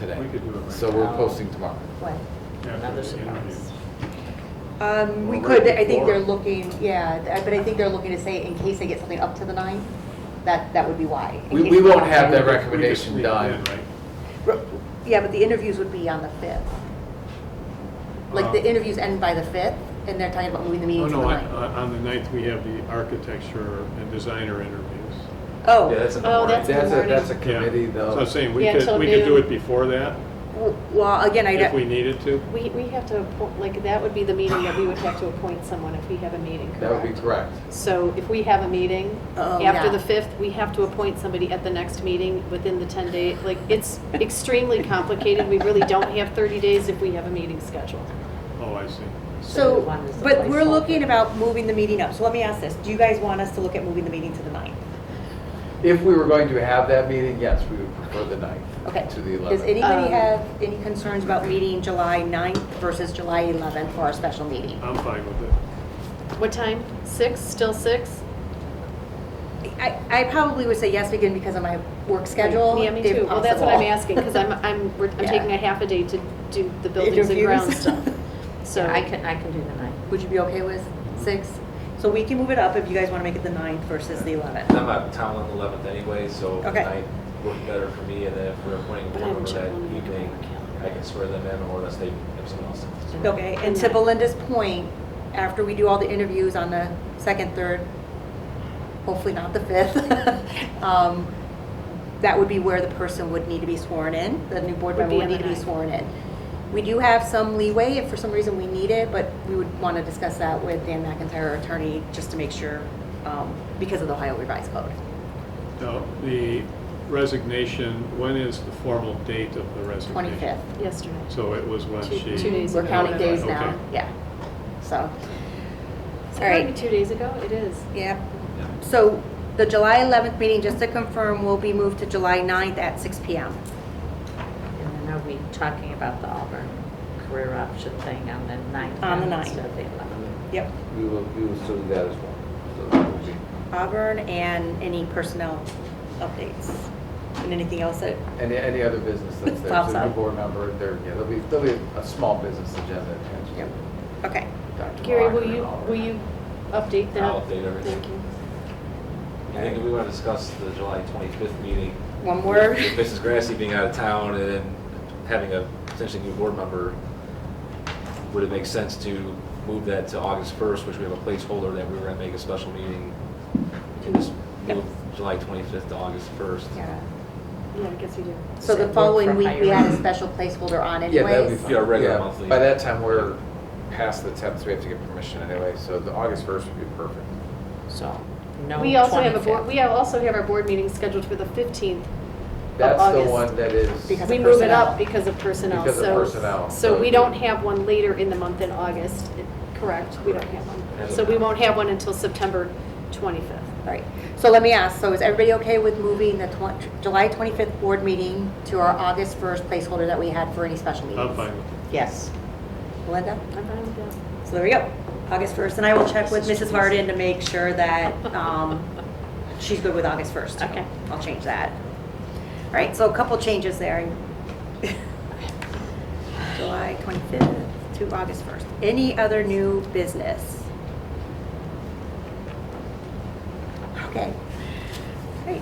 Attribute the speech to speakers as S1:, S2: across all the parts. S1: today.
S2: We could do it right
S1: So we're
S3: now.
S1: posting tomorrow.
S3: What?
S2: Yeah,
S3: Another
S2: for the interview.
S3: surprise.
S4: Um, we
S2: Or
S4: could,
S2: right
S4: I think they're
S2: before.
S4: looking, yeah, th- but I think they're looking to say in case they get something up to the nine, that, that would be why. in
S1: We,
S4: case
S1: we
S4: they
S1: won't
S4: don't
S1: have that
S4: it.
S2: We just sneak
S1: recommendation
S2: it
S1: done.
S2: in, right?
S4: R- Yeah, but the interviews would be on the fifth. Like, the
S2: Uh,
S4: interviews end by the fifth, and they're talking about moving the
S2: Oh,
S4: meeting to the
S2: no, I-
S4: ninth.
S2: uh, on the ninth, we have the architecture and designer interviews.
S4: Oh.
S5: Yeah, that's in the
S3: Oh,
S5: morning.
S3: that's in the
S1: That's a,
S3: morning.
S1: that's a
S2: Yeah.
S1: committee
S2: So I'm
S1: though.
S2: saying, we
S3: Yeah,
S2: could,
S3: till
S2: we could do
S3: noon.
S2: it before that,
S4: W- Well, again, I,
S2: if we
S4: don't-
S2: needed to.
S3: We, we have to, appoint- like, that would be the meeting that we would have to appoint someone if we have a meeting,
S1: That would be
S3: correct?
S1: correct.
S3: So if we have a meeting
S4: Oh,
S3: after
S4: yeah.
S3: the 5th, we have to appoint somebody at the next meeting within the 10 day, like, it's extremely complicated. We really don't have 30 days if we have a meeting scheduled.
S2: Oh, I see.
S4: so,
S3: the one is the
S4: but we're
S3: placeholder.
S4: looking about moving the meeting up. So let me ask this, do you guys want us to look at moving the meeting to the ninth?
S1: If we were going to have that meeting, yes, we would prefer the
S4: Okay.
S1: ninth to the
S4: Does
S1: eleventh.
S4: anybody
S3: Um,
S4: have any concerns about meeting July 9th versus July 11th for our special meeting?
S2: I'm fine with it.
S3: What time? 6? Still 6?
S4: I, I probably would say yes again because of my work schedule.
S3: Yeah, me
S4: if
S3: too. Well, that's what I'm
S4: possible.
S3: asking, because I'm, I'm, we're- I'm
S4: Yeah.
S3: taking a half a day to do the buildings and ground
S4: Interviews.
S3: stuff. So,
S6: I can, I can do the night.
S4: Would you be okay with six? So we can move it up if you guys want to make it the ninth versus the 11th.
S5: I'm out of town on the eleventh anyway, so
S4: Okay.
S5: night worked better for me, and then if we're appointing a
S3: But I
S5: board
S3: haven't
S5: member that
S3: checked on the
S5: evening,
S3: calendar.
S5: I can swear them in, or unless they have someone else.
S4: Okay, and to Belinda's point, after we do all the interviews on the second, third, hopefully not the fifth, um, that would be where the person would need to be sworn in, the new board
S3: Would
S4: member
S3: be
S4: would
S3: on
S4: need
S3: the
S4: to be
S3: ninth.
S4: sworn in. We do have some leeway if for some reason we need it, but we would want to discuss that with Dan McIntyre, our attorney, just to make sure, um, because of the Ohio revised code.
S2: Now, the resignation, when is the formal date of the resignation?
S4: Twenty-fifth.
S3: yesterday.
S2: So it was when
S3: Two-
S2: she.
S3: two days
S4: We're
S3: ago.
S4: counting days
S2: Okay.
S4: now, yeah. So,
S3: So
S4: all right.
S3: probably two days ago, it is.
S4: yeah.
S5: Yeah.
S4: So the July 11th meeting, just to confirm, will be moved to July 9th at 6 PM.
S6: And then are we talking about the Auburn career option thing on the ninth?
S4: On the
S6: now
S4: ninth.
S6: Instead of the eleventh?
S4: Yep.
S1: We will, we will still do that as well. So that will be-
S4: Auburn and any personnel updates and anything else that,
S1: Any, any other business that's there,
S4: Pops
S1: so the
S4: up.
S1: board member, there, yeah, there'll be, there'll be a small business agenda attached
S4: Yep.
S1: to
S4: okay.
S1: Dr.
S3: Gary, will
S1: Walker
S3: you,
S1: and all of
S3: will
S1: that.
S3: you update that?
S5: I'll update everything.
S3: Thank you.
S5: I think we want to discuss the July twenty-fifth meeting.
S4: One more.
S5: With Mrs. Grassy being out of town and then having a potentially new board member, would it make sense to move that to August first, which we have a placeholder that we were gonna make a special meeting? And just move July twenty-fifth to August first.
S4: Yeah.
S3: Yeah, I guess we do.
S4: So the
S6: Work
S4: following
S6: for
S4: week, we
S6: hire.
S4: had a special placeholder on
S1: Yeah, that'll be
S4: anyways.
S1: fine.
S5: Yeah, regular
S1: Yeah,
S5: monthly.
S1: By that time, we're past the tenth, so we have to get permission anyway, so the August first would be perfect.
S6: So, no.
S3: We also have a
S6: 25th.
S3: board, we have- also have our board meeting scheduled for the 15th.
S1: That's the
S3: August.
S1: one that is,
S4: Because-
S3: We
S4: of
S3: move it
S4: personnel.
S3: up because of personnel.
S1: Because of
S3: so-
S1: personnel,
S3: So
S1: so-
S3: we don't have one later in the month in August, correct? We don't have one.
S5: Correct.
S3: So we won't have one until September 25th.
S4: All right. So let me ask, so is everybody okay with moving the twen- July 25th board meeting to our August 1st placeholder that we had for any special meetings?
S2: I'm fine with it.
S6: Yes.
S4: Linda?
S3: I'm fine with that.
S4: So there we go, August 1st, and I will check with Mrs. Harden to make sure that um, she's good with August 1st.
S3: Okay.
S4: I'll change that. All right, so a couple changes there. July 25th to August 1st. Any other new business? Okay, great.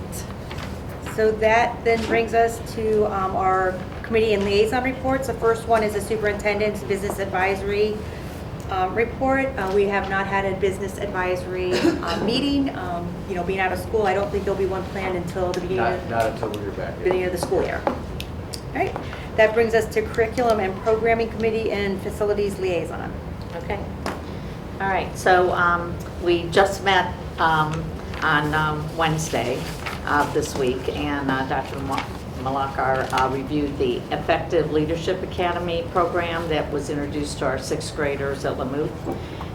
S4: So that then brings us to um, our committee and liaison reports. The first one is the superintendent's business advisory um, report. Uh, We have not had a business advisory uh, meeting. Um, You know, being out of school, I don't think there'll be one planned until the beginning
S1: not,
S4: of,
S1: not until we're back.
S4: beginning of the school year. All right, that brings us to curriculum and programming committee and facilities liaison.
S6: Okay. All right, so um, we just met um, on um, Wednesday of this week, and uh, Dr. Mal- Malakar uh, reviewed the Effective Leadership Academy program that was introduced to our sixth graders at Lamouth.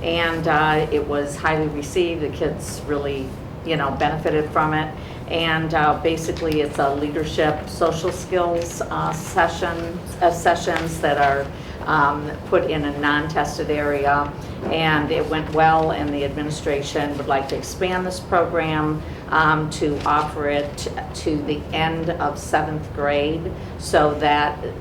S6: And uh, it was highly received, the kids really, you know, benefited from it. And uh, basically, it's a leadership, social skills uh, session, uh, sessions that are um, put in a non-tested area, and it went well, and the administration would like to expand this program um, to offer it to the end of seventh grade, so that